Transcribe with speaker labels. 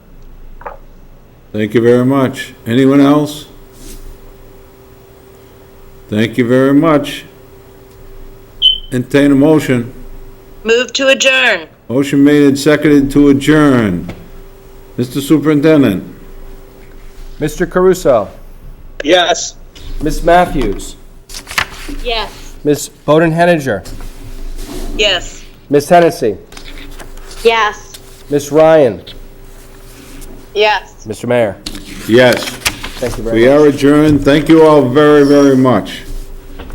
Speaker 1: Thank you very much. Anyone else? Thank you very much. Entertain a motion.
Speaker 2: Move to adjourn.
Speaker 1: Motion made and seconded to adjourn. Mr. Superintendent?
Speaker 3: Mr. Caruso,
Speaker 4: Yes.
Speaker 3: Miss Matthews,
Speaker 2: Yes.
Speaker 3: Miss Bowden Henninger,
Speaker 2: Yes.
Speaker 3: Miss Hennessy,
Speaker 2: Yes.
Speaker 3: Miss Ryan,
Speaker 2: Yes.
Speaker 3: Mr. Mayor.
Speaker 1: Yes.
Speaker 3: Thank you very much.
Speaker 1: We are adjourned. Thank you all very, very much.